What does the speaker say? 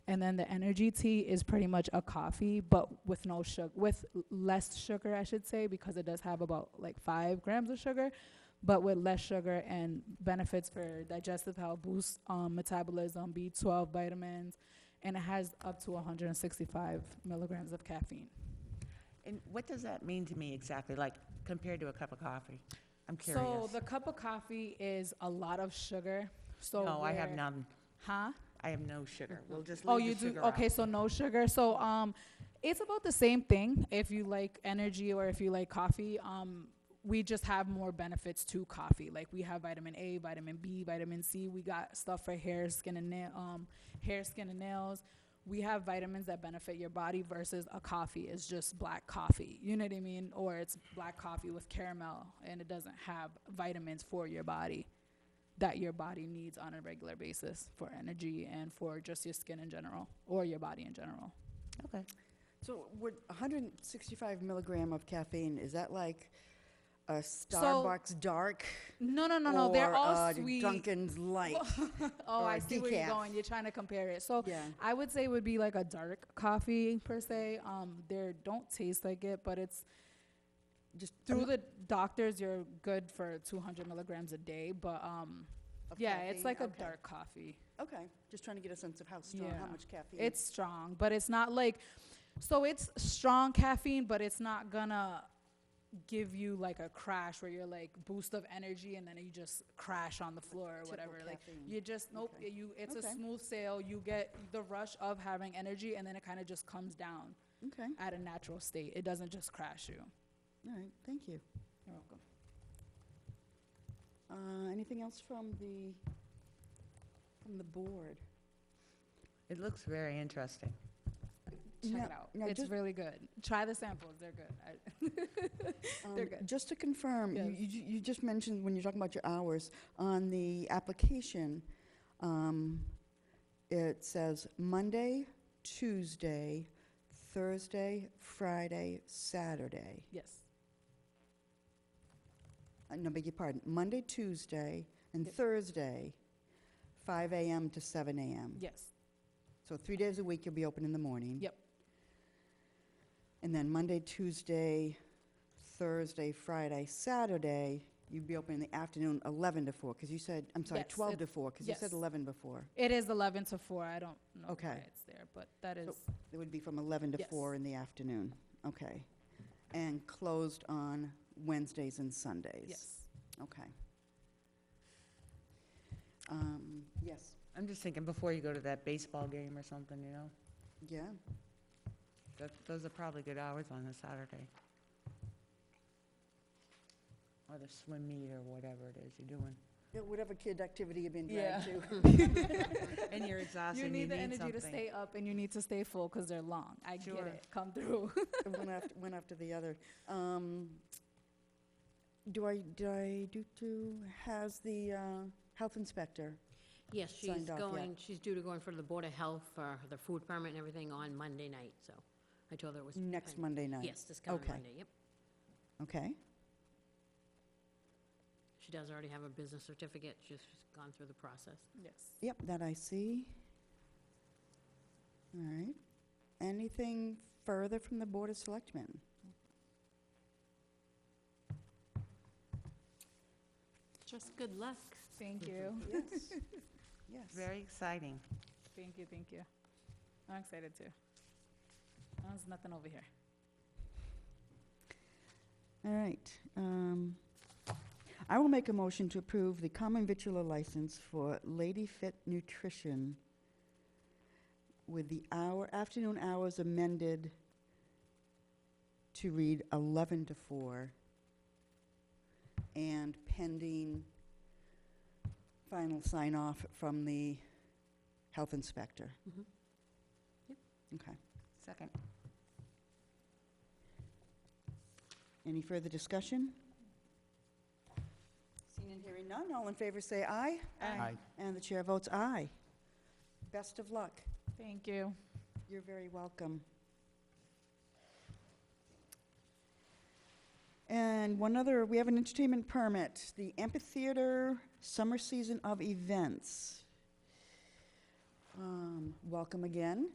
And then the energy tea is pretty much a coffee, but with no sugar, with l- less sugar, I should say, because it does have about like five grams of sugar, but with less sugar and benefits for digestive health, boosts um, metabolism, B12 vitamins, and it has up to 165 milligrams of caffeine. And what does that mean to me exactly, like compared to a cup of coffee? I'm curious. So the cup of coffee is a lot of sugar. So No, I have where- none. Huh? I do. No sugar. We'll just Oh, leave you the do? sugar out. Okay, so no sugar. So, um, it's about the same thing if you like energy or if you like coffee. Um, we just have more benefits to coffee. Like we have vitamin A, vitamin B, vitamin C. We got stuff for hair, skin, and nail, um, hair, skin, and nails. We have vitamins that benefit your body versus a coffee is just black coffee. You know what I mean? Or it's black coffee with caramel and it doesn't have vitamins for your body that your body needs on a regular basis for energy and for just your skin in general or your body in general. Okay. So would 165 milligram of caffeine, is that like a Starbucks dark? No, no, no, no. They're or all a sweet. Dunkin's light. oh, or I a see where you're decaf. going. You're trying to compare it. So Yeah. I would say it would be like a dark coffee per se. Um, they don't taste like it, but it's Just through the doctors. You're good for 200 milligrams a day, but um, Of yeah, it's caffeine, like a okay. dark coffee. Okay, just trying to get a sense of how strong, Yeah. how much caffeine. It's strong, but it's not like so it's strong caffeine, but it's not gonna give you like a crash where you're like boost of energy and then you just crash on the floor or typical whatever. Like caffeine. you just nope, Okay. you it's a Okay. smooth sail. You get the rush of having energy and then it kind of just comes down Okay, at a natural state. It doesn't just crash you. all right, thank you. You're welcome. Uh, Anything else from the, from the board? It looks very interesting. Check No, it out. no, it's just- really good. Try the samples. They're good. I, They're Um, good. Just to confirm, you, Yes. you ju- you just mentioned when you're talking about your hours, on the application, um, it says Monday, Tuesday, Thursday, Friday, Saturday. yes. Uh, No, beg your pardon, Monday, Tuesday, and Yep. Thursday, 5 AM to 7 AM. Yes. So three days a week, you'll be open in the morning. Yep. And then Monday, Tuesday, Thursday, Friday, Saturday, you'd be open in the afternoon, 11 to 4, because you said, I'm sorry, Yes, 12 it- to 4, because you said yes. 11 before. It is 11 to 4. I don't know why Okay. it's there, but that is So- It would be from 11 to Yes. 4 in the afternoon. Okay. And closed on Wednesdays and Sundays. yes. Okay. Um, Yes, I'm just thinking before you go to that baseball game or something, you know? yeah. That, those are probably good hours on a Saturday. Or the swim meet or whatever it is you're doing. Yeah, Whatever kid activity you've been Yeah. dragged to. And you're exhausted You and you need the need energy to something. stay up and you need to stay full because they're long. I get Sure. it. Come through. one after, one after the other. Um, do I, did I do to, has the, uh, health inspector? Yes, she's signed off yet. going, she's due to go in front of the Board of Health for the food permit and everything on Monday night, so I told her it was. Next I- Monday night? Yes, this coming Okay. Monday, yep. Okay, She does already have a business certificate, she's just gone through the process. yes. yep, that I see. All right. Anything further from the Board of Selectmen? Just good luck. Thank Mm-hmm. you. Yes. Yes. Very exciting. Thank you. Thank you. I'm excited too. Oh, There's nothing over here. All right. um, I will make a motion to approve the common vitula license for Lady Fit Nutrition with the hour, afternoon hours amended to read 11 to 4 and pending final sign-off from the health inspector. Mhm. Yep. Okay. Second. Any further discussion? Seeing and hearing none, all in favor say aye. Aye. And the chair votes aye. Best of luck. Thank you. You're very welcome. And one other, we have an entertainment permit, the amphitheater summer season of events. Um, Um, Welcome again.